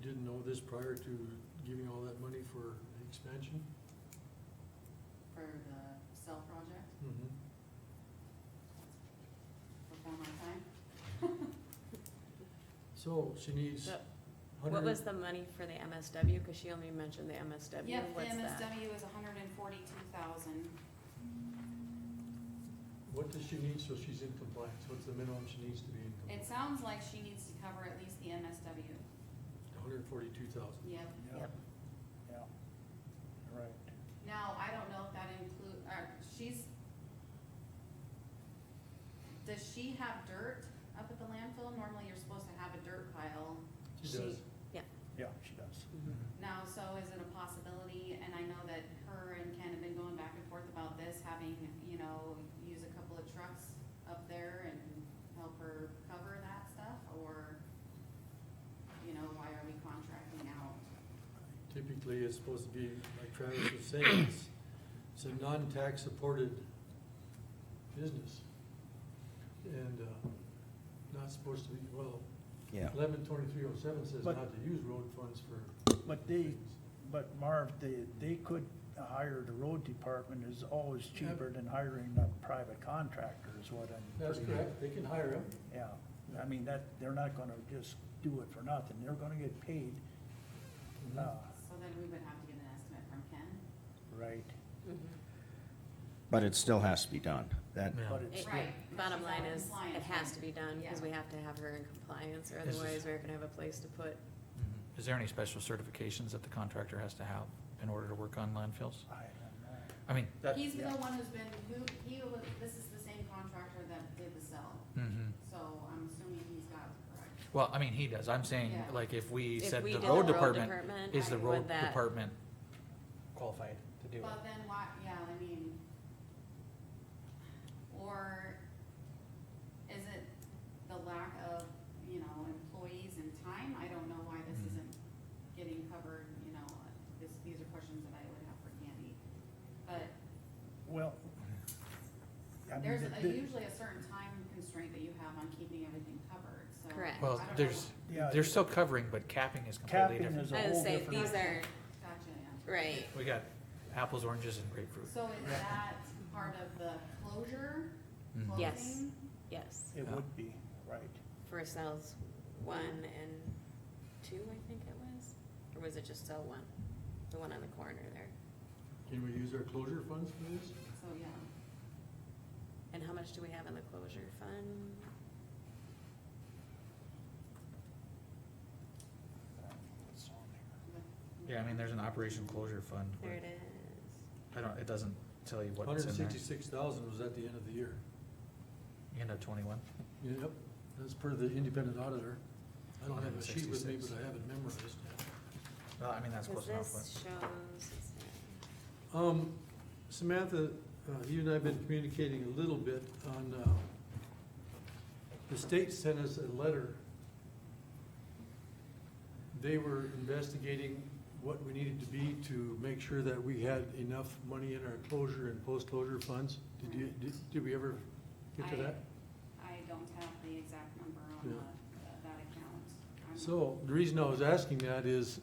didn't know this prior to giving all that money for the expansion? for the cell project Mm-hmm. before my time. So she needs Yep. What was hundred, the money for the MSW? Because she only mentioned the MSW. Yep, the What's that? MSW is hundred and forty-two thousand. what does she need so she's in compliance? What's the minimum she needs to be in It compliance? sounds like she needs to cover at least the MSW. Hundred and forty-two thousand. Yep. Yeah, Yep. yeah, right. Now, I don't know if that include, uh, she's, does she have dirt up at the landfill? Normally, you're supposed to have a dirt pile. She does. Yeah, she does. Mhm. Mm-hmm. Now, so is it a possibility, and I know that her and Ken have been going back and forth about this, having, you know, use a couple of trucks up there and help her cover that stuff, or, you know, why are we contracting out? Typically, it's supposed to be, like Travis was saying, it's, it's a non-tax supported business. And, uh, not supposed to be, well, Yeah. eleven twenty-three oh seven says But- not to use road funds for But they, but Marv, they, they could hire, the road department is always cheaper than hiring a private contractor is what I'm. That's pretty- correct, they can hire him. Yeah, I mean, that, they're not gonna just do it for nothing, they're gonna get paid, Mm-hmm. uh, So then we would have to get an estimate from Ken. right, Mm-hmm. But it still has to be done. That, Yeah. but it's. It- Right. Bottom She's out of line is, it compliance, has right? to be done because Yeah. we have to have her in compliance or This is- otherwise we're gonna have a place to put. Mhm. Is there any special certifications that the contractor has to have in order to work on landfills? I don't I mean, that, He's the yeah. one who's been, who, he, was- this is the same contractor that did the cell, mhm. so I'm assuming he's got it correct. well, I mean, he does. I'm saying, Yeah. like, if we If said we the did road department, is the would road that- department qualified to do But it? then why, yeah, I mean, or is it the lack of, you know, employees and time? I don't know why this Mhm. Mm-hmm. isn't getting covered, you know, this, these are questions that I would have for Candy. But Well. I mean, there's the- a- the- usually a certain time constraint that you have on keeping everything covered, so. Correct. Well, I don't know there's, Yeah. they're still covering, but capping is completely Capping different. is a I would whole say different. These are- what- Gotcha, yeah. Right. We got apples, oranges, and grapefruit. So is that part of the closure, Mm-hmm. Mhm. Yes. closing? Yes, It would be, right, for cells one and two, I think it was. Or was it just cell one? The one on the corner there. Can we use our closure funds for this? So, yeah. And how much do we have in the closure fund? it's on there. Yeah, I mean, there's an operation closure fund. but There it is. I don't, it doesn't tell you what's Hundred in and there. sixty-six thousand was at the end of the year. End of twenty-one. Yep, that's per the independent auditor. I don't have a sheet with me, 166. but I have it memorized. Well, I mean, that's Cause close enough, this shows, it's not- Um, Samantha, uh, you and I have been communicating a little bit on, uh, the state sent us a letter. They were investigating what we needed to be to make sure that we had enough money in our closure and post-closure funds. Did you, did, did we ever get to I- that? I don't have the exact number on Yeah. the- that account. I'm- So, the reason I was asking that is,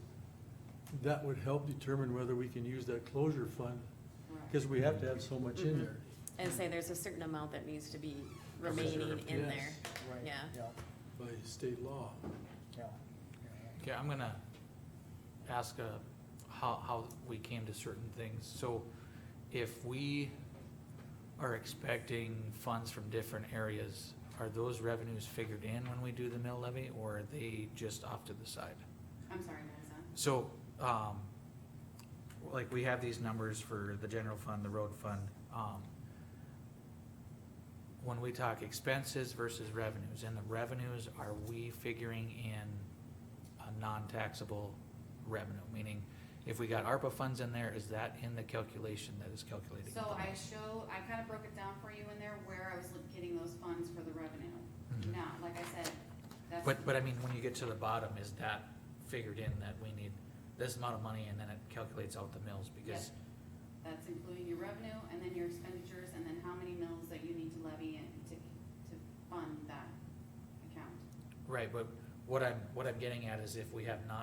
that would help determine whether we can use that closure fund, Correct. because we have to have so much Mm-hmm. in there. and say there's a certain amount that needs to be remaining Reserved, in yes. there. right, Yeah. yeah, by state law. yeah. Okay, I'm gonna ask uh, how, how we came to certain things. So if we are expecting funds from different areas, are those revenues figured in when we do the mill levy or are they just off to the side? I'm sorry, Melissa. So, um, like we have these numbers for the general fund, the road fund, um, when we talk expenses versus revenues, and the revenues, are we figuring in a non-taxable revenue? Meaning, if we got ARPA funds in there, is that in the calculation that is calculating? So I show, I kind of broke it down for you in there where I was look- getting those funds for the revenue. Mm-hmm. Mhm. Now, like I said, that's. But, but I mean, when you get to the bottom, is that figured in that we need this amount of money and then it calculates out the mills? Yes. Because, That's including your revenue and then your expenditures and then how many mills that you need to levy and to, to fund that account. right, but what I'm, what I'm getting at is if we have non.